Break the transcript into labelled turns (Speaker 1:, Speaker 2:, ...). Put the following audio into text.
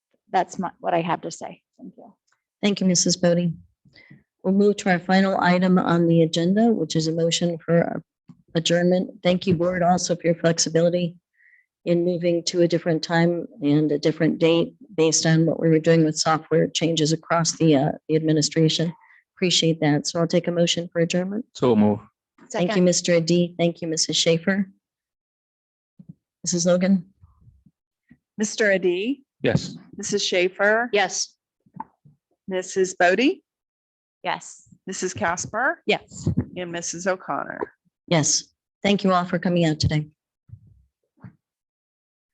Speaker 1: that's my, what I have to say. Thank you.
Speaker 2: Thank you, Mrs. Bodie. We'll move to our final item on the agenda, which is a motion for adjournment. Thank you, board, also for your flexibility in moving to a different time and a different date based on what we were doing with software changes across the uh, the administration. Appreciate that. So I'll take a motion for adjournment.
Speaker 3: So move.
Speaker 2: Thank you, Mr. Adi. Thank you, Mrs. Schaefer. Mrs. Logan?
Speaker 4: Mr. Adi,
Speaker 3: Yes.
Speaker 4: Mrs. Schaefer.
Speaker 2: Yes.
Speaker 4: Mrs. Bodie,
Speaker 1: Yes.
Speaker 4: Mrs. Casper,
Speaker 2: Yes.
Speaker 4: and Mrs. O'Connor.
Speaker 2: Yes. Thank you all for coming out today.